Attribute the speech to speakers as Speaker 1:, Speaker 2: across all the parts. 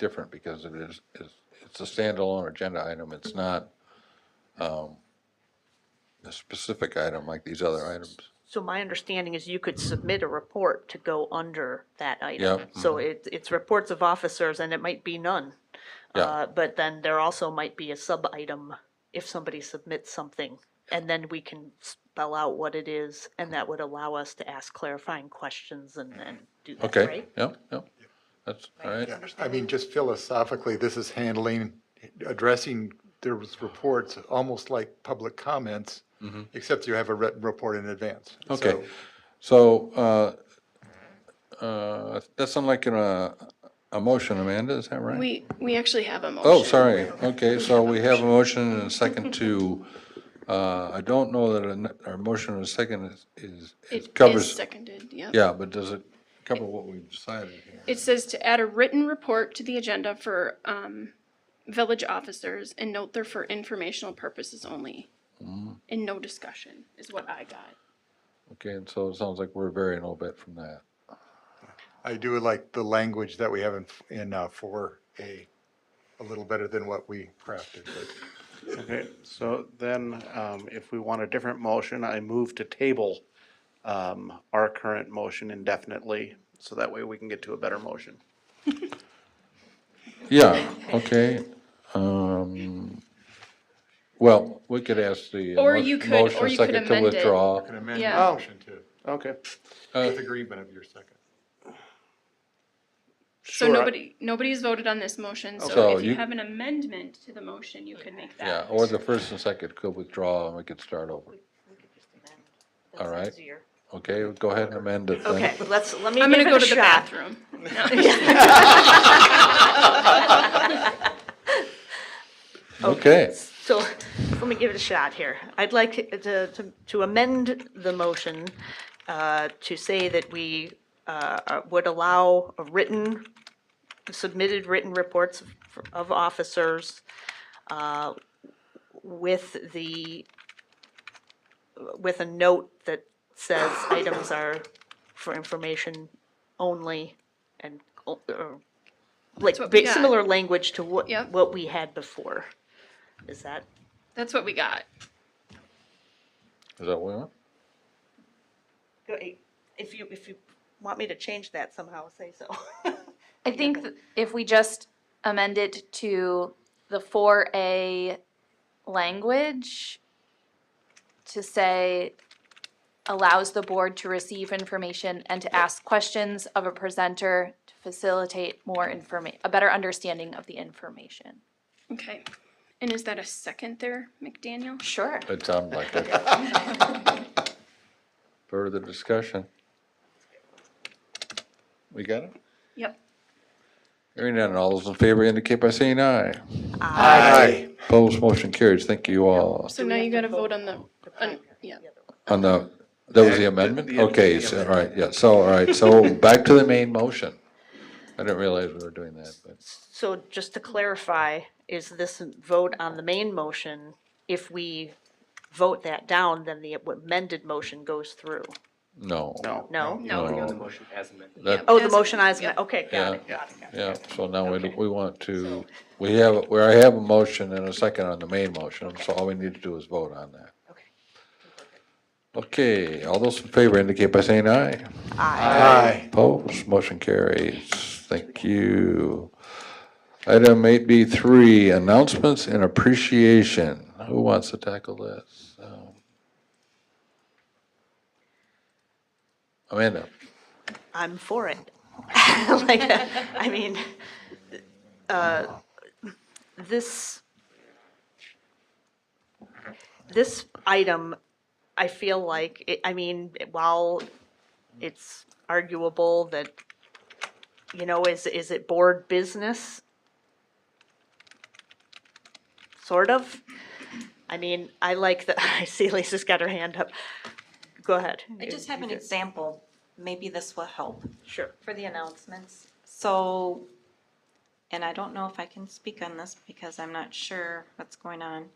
Speaker 1: different because it is, it's- it's a standalone agenda item. It's not um, a specific item like these other items.
Speaker 2: So my understanding is you could submit a report to go under that item.
Speaker 1: Yep.
Speaker 2: So it, it's reports of officers and it might be none.
Speaker 1: Yeah.
Speaker 2: Uh, But then there also might be a sub-item if somebody submits something. And then we can spell out what it is and that would allow us to ask clarifying questions and then do that,
Speaker 1: Okay,
Speaker 2: right?
Speaker 1: yep, yep. That's, all right.
Speaker 3: Yeah, I mean, just philosophically, this is handling, addressing, there was reports, almost like public comments, except you have a written report in advance.
Speaker 1: Okay.
Speaker 3: So,
Speaker 1: So, uh, uh, that's unlike in a, uh, a motion, Amanda, is that right?
Speaker 4: We, we actually have a motion.
Speaker 1: Oh, sorry. Okay, so we have a motion and a second to, uh, I don't know that an- our motion and a second is- is, it
Speaker 4: It
Speaker 1: covers.
Speaker 4: is seconded, yeah.
Speaker 1: Yeah, but does it cover what we've decided here?
Speaker 4: It says to add a written report to the agenda for, um, village officers and note they're for informational purposes only.
Speaker 1: Mm.
Speaker 4: And no discussion is what I got.
Speaker 1: Okay, and so it sounds like we're varying a little bit from that.
Speaker 3: I do like the language that we have in, in four A, a little better than what we crafted, but
Speaker 5: Okay, so then, um, if we want a different motion, I move to table, um, our current motion indefinitely, so that way we can get to a better motion.
Speaker 1: Yeah, okay. Um, well, we could ask the.
Speaker 4: Or
Speaker 1: mo-
Speaker 4: you could-
Speaker 1: motion
Speaker 4: or you could
Speaker 1: second to
Speaker 4: amend it.
Speaker 1: withdraw.
Speaker 3: can amend your
Speaker 4: Yeah.
Speaker 3: motion to,
Speaker 5: Okay.
Speaker 1: Uh,
Speaker 3: with agreement of your second.
Speaker 4: So
Speaker 5: Sure, I-
Speaker 4: nobody, nobody's voted on this motion,
Speaker 1: So
Speaker 4: so if
Speaker 1: you-
Speaker 4: you have an amendment to the motion, you could make that.
Speaker 1: Yeah, or the first and second could withdraw and we could start over. All right. Okay, go ahead and amend it then.
Speaker 2: Okay, let's, let me
Speaker 4: I'm
Speaker 2: give
Speaker 4: gonna
Speaker 2: it
Speaker 4: go
Speaker 2: a
Speaker 4: to the
Speaker 2: shot.
Speaker 4: bathroom.
Speaker 1: Okay,
Speaker 2: So let me give it a shot here. I'd like to- to to amend the motion uh, to say that we uh, uh, would allow a written, submitted written reports of- of officers uh, with the, with a note that says items are for information only and, uh, like,
Speaker 4: what we
Speaker 2: ba-
Speaker 4: got.
Speaker 2: similar language to what,
Speaker 4: Yep.
Speaker 2: what we had before. Is that?
Speaker 4: That's what we got.
Speaker 1: is that what we want?
Speaker 2: eh, If you, if you want me to change that somehow, say so.
Speaker 6: I think th- if we just amend it to the four A language to say allows the board to receive information and to ask questions of a presenter to facilitate more informa- a better understanding of the information.
Speaker 4: Okay. And is that a second there, McDaniel?
Speaker 6: Sure.
Speaker 1: It sounded like it. Further discussion? We got it?
Speaker 4: Yep.
Speaker 1: Hearing none, all those in favor indicate by saying aye.
Speaker 3: Aye.
Speaker 1: Opposed, motion carries. Thank you all.
Speaker 4: So now you gotta vote on the, on, yeah.
Speaker 1: On the, that was the amendment? Okay, so, all right, yeah, so, all right, so back to the main motion. I didn't realize we were doing that, but,
Speaker 2: So just to clarify, is this vote on the main motion, if we vote that down, then the amended motion goes through?
Speaker 1: no.
Speaker 5: No.
Speaker 2: No?
Speaker 1: No.
Speaker 7: The motion as amended.
Speaker 1: That,
Speaker 2: Oh, the
Speaker 4: As-
Speaker 2: motion is,
Speaker 4: yep.
Speaker 2: okay, got it, got it, got it.
Speaker 1: yeah, so now we, we want to, we have, we already have a motion and a second on the main motion, so all we need to do is vote on that.
Speaker 2: Okay.
Speaker 1: Okay, all those in favor indicate by saying aye.
Speaker 2: Aye.
Speaker 3: Aye.
Speaker 1: Opposed, motion carries. Thank you. Item eight B three, announcements and appreciation. Who wants to tackle this? Um, Amanda?
Speaker 2: I'm for it. like, I mean, uh, this, this item, I feel like, it- I mean, while it's arguable that, you know, is, is it board business? Sort of. I mean, I like that, I see Lisa's got her hand up. Go ahead.
Speaker 8: I just have an example, maybe this will help
Speaker 2: Sure.
Speaker 8: for the announcements. So, and I don't know if I can speak on this because I'm not sure what's going on.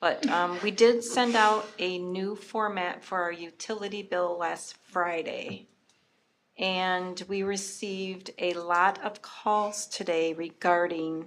Speaker 8: But um, we did send out a new format for our utility bill last Friday. And we received a lot of calls today regarding